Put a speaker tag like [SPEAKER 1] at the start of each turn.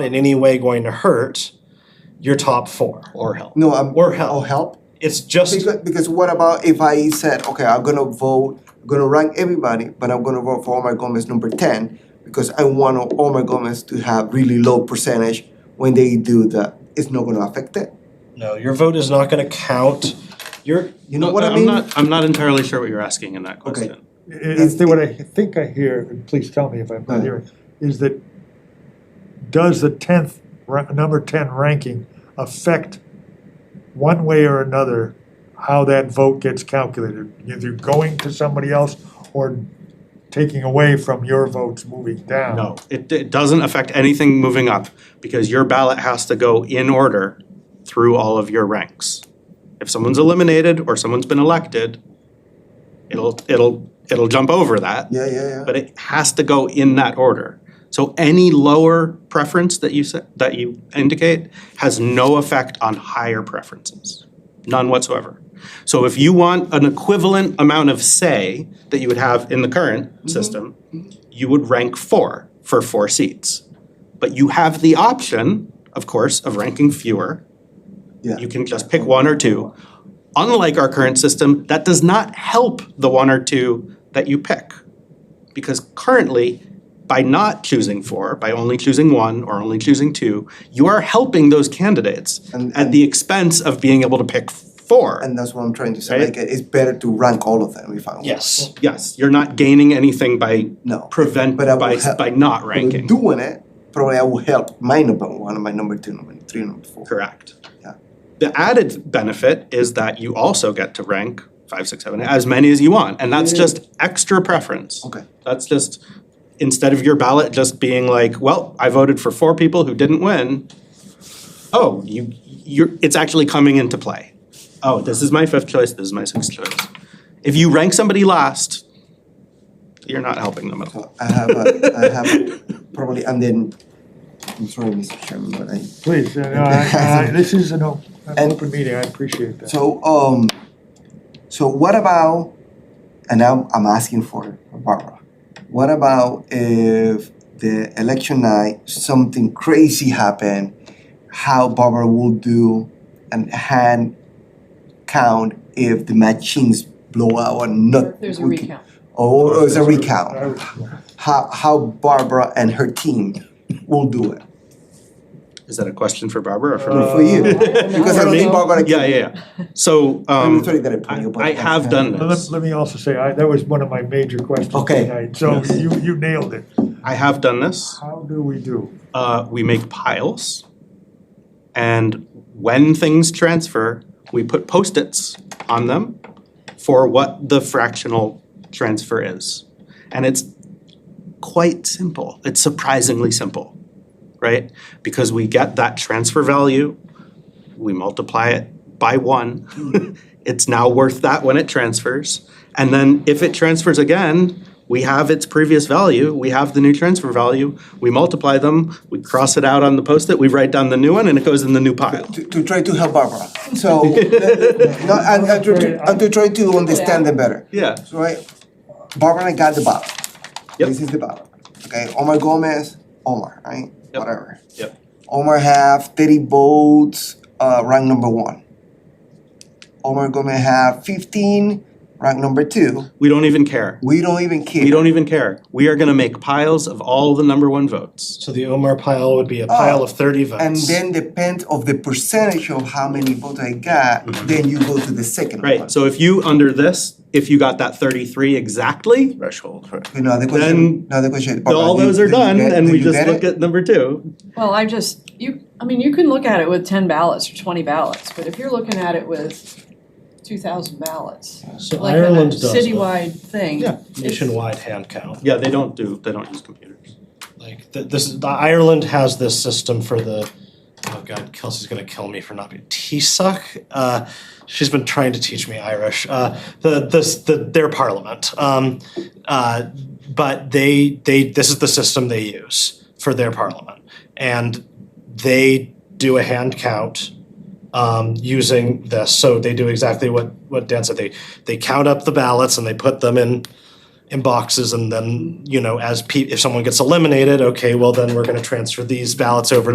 [SPEAKER 1] in any way going to hurt your top four
[SPEAKER 2] or help.
[SPEAKER 3] No, I'm.
[SPEAKER 1] or help.
[SPEAKER 3] Oh, help?
[SPEAKER 1] It's just
[SPEAKER 3] Because, because what about if I said, okay, I'm gonna vote, I'm gonna rank everybody, but I'm gonna vote for Omar Gomez number ten because I want Omar Gomez to have really low percentage when they do that. It's not gonna affect it.
[SPEAKER 1] no. Your vote is not going to count. Your
[SPEAKER 3] You know what I mean?
[SPEAKER 2] am not, I'm not entirely sure what you're asking in that
[SPEAKER 3] Okay.
[SPEAKER 2] question.
[SPEAKER 4] I think what I think I hear, and please tell me if I'm not hearing, is that does the tenth, ra- number ten ranking affect one way or another how that vote gets calculated? Either going to somebody else or taking away from your votes moving down?
[SPEAKER 2] No, it, it doesn't affect anything moving up because your ballot has to go in order through all of your ranks. If someone's eliminated or someone's been elected, it'll, it'll, it'll jump over that,
[SPEAKER 3] Yeah, yeah, yeah.
[SPEAKER 2] but it has to go in that order. So any lower preference that you set, that you indicate has no effect on higher preferences, none whatsoever. So if you want an equivalent amount of say that you would have in the current system, you would rank four for four seats. But you have the option, of course, of ranking fewer.
[SPEAKER 3] Yeah.
[SPEAKER 2] You can just pick one or two. Unlike our current system, that does not help the one or two that you pick. Because currently, by not choosing four, by only choosing one or only choosing two, you are helping those candidates
[SPEAKER 3] And-
[SPEAKER 2] at the expense of being able to pick four.
[SPEAKER 3] And that's what I'm trying to say.
[SPEAKER 2] Right.
[SPEAKER 3] Like, it's better to rank all of them if I want.
[SPEAKER 1] yes.
[SPEAKER 2] Yes, you're not gaining anything by
[SPEAKER 3] No.
[SPEAKER 2] prevent,
[SPEAKER 3] But I will
[SPEAKER 2] by,
[SPEAKER 3] help.
[SPEAKER 2] by not
[SPEAKER 3] But
[SPEAKER 2] ranking,
[SPEAKER 3] Doing it probably I will help my number one, my number two, number three, number four.
[SPEAKER 2] correct.
[SPEAKER 3] Yeah.
[SPEAKER 2] The added benefit is that you also get to rank five, six, seven, as many as you want, and that's just extra preference.
[SPEAKER 3] Okay.
[SPEAKER 2] That's just, instead of your ballot just being like, well, I voted for four people who didn't win. Oh, you, you're, it's actually coming into play. Oh, this is my fifth choice, this is my sixth choice. If you rank somebody last, you're not helping them at all.
[SPEAKER 3] So I have a, I have a, probably, and then, I'm sorry, Mr. Chairman, but I
[SPEAKER 4] Please, uh, no, I- I- this is an o- an
[SPEAKER 3] And-
[SPEAKER 4] open meeting, I appreciate that.
[SPEAKER 3] So, um, so what about, and I'm, I'm asking for Barbara, what about if the election night, something crazy happened, how Barbara will do an hand count if the machines blow out or not?
[SPEAKER 5] Or if there's a
[SPEAKER 3] we can-
[SPEAKER 5] recount.
[SPEAKER 3] Or, or it's a recount,
[SPEAKER 4] I would-
[SPEAKER 3] how, how Barbara and her team will do it,
[SPEAKER 2] Is that a question for Barbara or for me?
[SPEAKER 4] Uh,
[SPEAKER 3] for you?
[SPEAKER 5] I don't know.
[SPEAKER 3] Because I don't think Barbara can.
[SPEAKER 2] Yeah, yeah, yeah. So, um,
[SPEAKER 3] I'm sorry that I put
[SPEAKER 2] I,
[SPEAKER 3] you, but
[SPEAKER 2] I
[SPEAKER 3] that's-
[SPEAKER 2] have done
[SPEAKER 4] Well, Let,
[SPEAKER 2] this.
[SPEAKER 4] let me also say, I, that was one of my major questions
[SPEAKER 3] Okay.
[SPEAKER 4] tonight, so
[SPEAKER 3] Yes.
[SPEAKER 4] you, you nailed it.
[SPEAKER 2] I have done this.
[SPEAKER 4] How do we do?
[SPEAKER 2] Uh, we make piles. And when things transfer, we put post-its on them for what the fractional transfer is. And it's quite simple. It's surprisingly simple, right? Because we get that transfer value, we multiply it by one. It's now worth that when it transfers. And then if it transfers again, we have its previous value, we have the new transfer value, we multiply them, we cross it out on the post-it, we write down the new one, and it goes in the new pile.
[SPEAKER 3] to, to try to help Barbara. So, no, and, and, to, and to try to understand them better.
[SPEAKER 2] Yeah.
[SPEAKER 3] So, right, Barbara got the ballot.
[SPEAKER 2] Yep.
[SPEAKER 3] This is the ballot. Okay, Omar Gomez, Omar, right?
[SPEAKER 2] Yep.
[SPEAKER 3] Whatever.
[SPEAKER 2] Yep.
[SPEAKER 3] Omar have 30 votes, uh, rank number one. Omar Gomez have 15, rank number two.
[SPEAKER 2] We don't even care.
[SPEAKER 3] We don't even care.
[SPEAKER 2] We don't even care. We are gonna make piles of all the number one votes.
[SPEAKER 1] So the Omar pile would be a pile of thirty votes.
[SPEAKER 3] and then depends of the percentage of how many votes I got, then you go to the second one.
[SPEAKER 2] Mm-hmm. Right, so if you, under this, if you got that thirty-three exactly,
[SPEAKER 6] threshold, right?
[SPEAKER 3] Okay, now the
[SPEAKER 2] Then
[SPEAKER 3] question, now the question. Barbara,
[SPEAKER 2] all
[SPEAKER 3] do Oh, you-
[SPEAKER 2] those are
[SPEAKER 3] do you
[SPEAKER 2] done,
[SPEAKER 3] get-
[SPEAKER 2] and
[SPEAKER 3] do
[SPEAKER 2] we
[SPEAKER 3] you
[SPEAKER 2] just
[SPEAKER 3] get
[SPEAKER 2] look
[SPEAKER 3] it?
[SPEAKER 2] at number two.
[SPEAKER 5] Well, I just, you, I mean, you can look at it with ten ballots or twenty ballots, but if you're looking at it with two thousand ballots,
[SPEAKER 1] so
[SPEAKER 5] like a
[SPEAKER 1] Ireland does a
[SPEAKER 5] citywide thing.
[SPEAKER 2] Yeah.
[SPEAKER 5] it's-
[SPEAKER 1] uh, nationwide hand count.
[SPEAKER 2] Yeah, they don't do, they don't use computers.
[SPEAKER 1] Like th- this, the Ireland has this system for the. Oh God, Kelsey's gonna kill me for not being Taoiseach. Uh, she's been trying to teach me Irish. Uh, the this the their parliament. Um, uh, but they they this is the system they use for their parliament, and they do a hand count um, using this. So they do exactly what what Dan said. They they count up the ballots and they put them in in boxes and then you know as pe- if someone gets eliminated okay well then we're going to transfer these ballots over